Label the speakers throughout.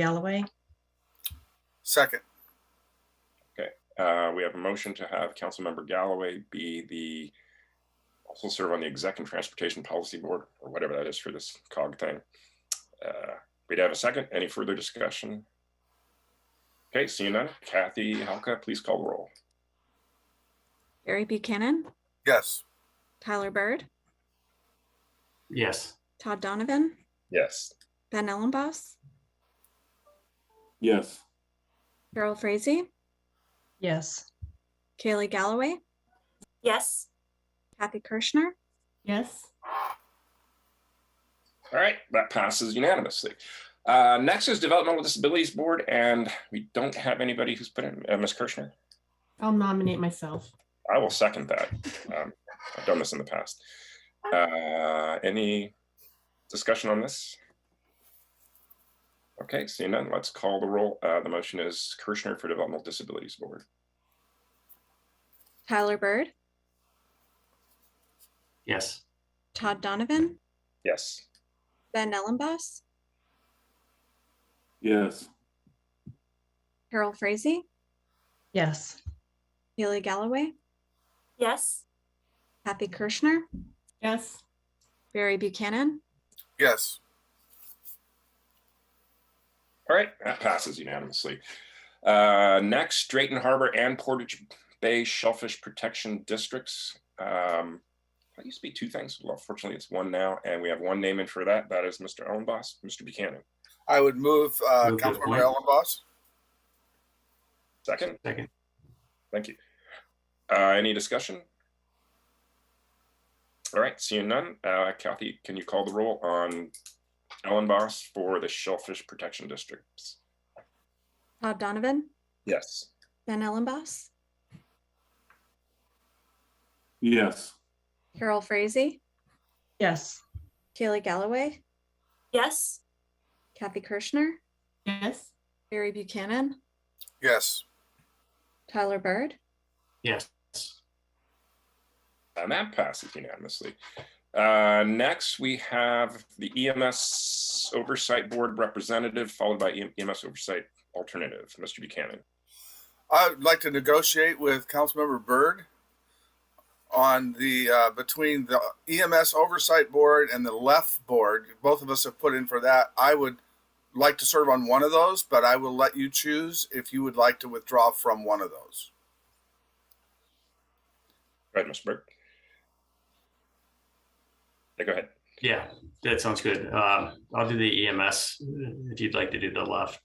Speaker 1: Galloway?
Speaker 2: Second,
Speaker 3: Uh, we have a motion to have Councilmember Galloway be the, also serve on the Exec and Transportation Policy Board, or whatever that is for this cog thing. Uh, We'd have a second. Any further discussion? Okay, seeing none. Kathy Halka, please call the roll.
Speaker 4: Barry Buchanan,
Speaker 2: yes.
Speaker 4: Tyler Bird,
Speaker 5: Yes.
Speaker 4: Todd Donovan,
Speaker 3: Yes.
Speaker 4: Ben Ellenboss,
Speaker 5: Yes.
Speaker 4: Carol Frazee,
Speaker 1: Yes.
Speaker 4: Kaylee Galloway,
Speaker 6: Yes.
Speaker 4: Kathy Kirschner,
Speaker 6: Yes.
Speaker 3: All right, that passes unanimously. Uh, Next is Developmental Disabilities Board, and we don't have anybody who's put in, uh, Ms. Kirshner.
Speaker 6: I'll nominate myself.
Speaker 3: I will second that. Um, I've done this in the past. Uh, any discussion on this? Okay, seeing none, let's call the roll. Uh, the motion is Kirshner for Developmental Disabilities Board.
Speaker 4: Tyler Bird,
Speaker 5: Yes.
Speaker 4: Todd Donovan,
Speaker 3: Yes.
Speaker 4: Ben Ellenboss,
Speaker 5: Yes.
Speaker 4: Carol Frazee,
Speaker 1: Yes.
Speaker 4: Kaylee Galloway,
Speaker 6: Yes.
Speaker 4: Kathy Kirschner,
Speaker 6: Yes.
Speaker 4: Barry Buchanan,
Speaker 2: Yes,
Speaker 3: All right, that passes unanimously. Uh, next, Drayton Harbor and Portage Bay Shellfish Protection Districts. Um, that used to be two things. Well, fortunately, it's one now, and we have one name in for that. That is Mr. Ellenboss, Mr. Buchanan.
Speaker 2: I would move, uh,
Speaker 5: Move to
Speaker 2: Councilmember
Speaker 5: appoint.
Speaker 2: Ellenboss.
Speaker 3: Second?
Speaker 5: Second.
Speaker 3: Thank you. Uh, any discussion? All right, seeing none, uh, Kathy, can you call the roll on Ellen Boss for the Shellfish Protection Districts?
Speaker 4: Todd Donovan,
Speaker 3: Yes.
Speaker 4: Ben Ellenboss,
Speaker 5: Yes.
Speaker 4: Carol Frazee,
Speaker 1: Yes.
Speaker 4: Kaylee Galloway,
Speaker 6: Yes.
Speaker 4: Kathy Kirschner,
Speaker 6: Yes.
Speaker 4: Barry Buchanan,
Speaker 2: Yes,
Speaker 4: Tyler Bird,
Speaker 5: Yes.
Speaker 3: And Uh, that passes unanimously. Uh, next, we have the EMS Oversight Board Representative, followed by E EMS Oversight Alternative, Mr. Buchanan.
Speaker 2: I would like to negotiate with Councilmember Byrd on the, uh, between the EMS Oversight Board and the Left Board. Both of us have put in for that. I would like to serve on one of those, but I will let you choose if you would like to withdraw from one of those.
Speaker 3: Go ahead, Mr. Burke. Yeah, go ahead.
Speaker 5: Yeah, that sounds good. Uh, I'll do the EMS uh, if you'd like to do the left.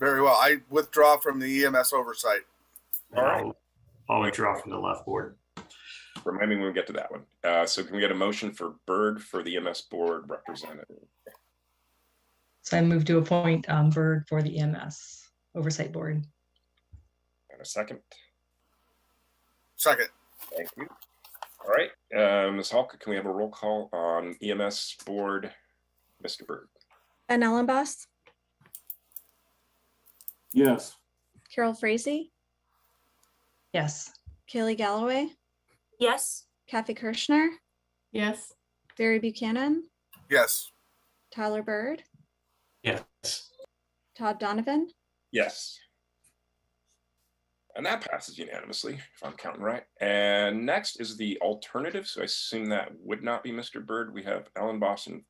Speaker 2: Very well. I withdraw from the EMS Oversight.
Speaker 3: All right.
Speaker 5: I'll- I'll withdraw from the left board.
Speaker 3: Remind me when we get to that one. Uh, so can we get a motion for Bird for the MS Board Representative?
Speaker 1: So I move to appoint um, Bird for the EMS Oversight Board.
Speaker 3: And a second?
Speaker 2: Second,
Speaker 3: Thank you. All right, uh, Ms. Halka, can we have a roll call on EMS Board, Mr. Bird?
Speaker 4: Ben Ellenboss,
Speaker 5: Yes.
Speaker 4: Carol Frazee,
Speaker 1: Yes.
Speaker 4: Kaylee Galloway,
Speaker 6: Yes.
Speaker 4: Kathy Kirschner,
Speaker 6: Yes.
Speaker 4: Barry Buchanan,
Speaker 2: yes.
Speaker 4: Tyler Bird,
Speaker 5: Yes.
Speaker 4: Todd Donovan,
Speaker 3: Yes. And that passes unanimously, if I'm counting right. And next is the alternative, so I assume that would not be Mr. Bird. We have Ellen Boston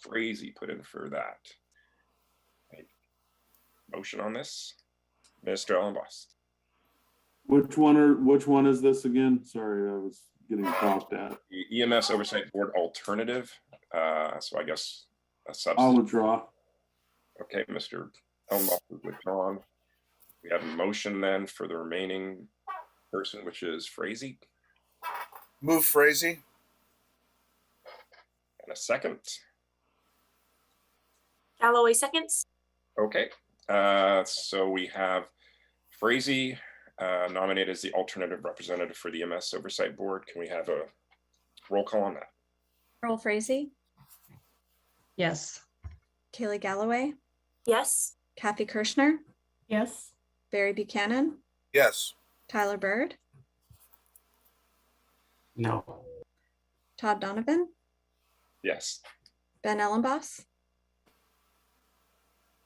Speaker 3: Frazee put in for that. Right. Motion on this, Mr. Ellen Boston.
Speaker 7: Which one are, which one is this again? Sorry, I was getting coughed at.
Speaker 3: the EMS Oversight Board alternative. Uh, so I guess a
Speaker 7: I'll
Speaker 3: substitute.
Speaker 7: withdraw.
Speaker 3: Okay, Mr. Elmhoff is withdrawn. We have a motion then for the remaining person, which is Frazee,
Speaker 2: Move Frazee.
Speaker 3: and a second.
Speaker 6: Galloway seconds.
Speaker 3: Okay, uh, so we have Frazee uh, nominated as the alternative representative for the EMS Oversight Board. Can we have a roll call on that?
Speaker 4: Carol Frazee,
Speaker 1: Yes.
Speaker 4: Kaylee Galloway,
Speaker 6: Yes.
Speaker 4: Kathy Kirschner,
Speaker 6: Yes.
Speaker 4: Barry Buchanan,
Speaker 2: Yes,
Speaker 4: Tyler Bird,
Speaker 5: No.
Speaker 4: Todd Donovan,
Speaker 3: Yes.
Speaker 4: Ben Ellenboss,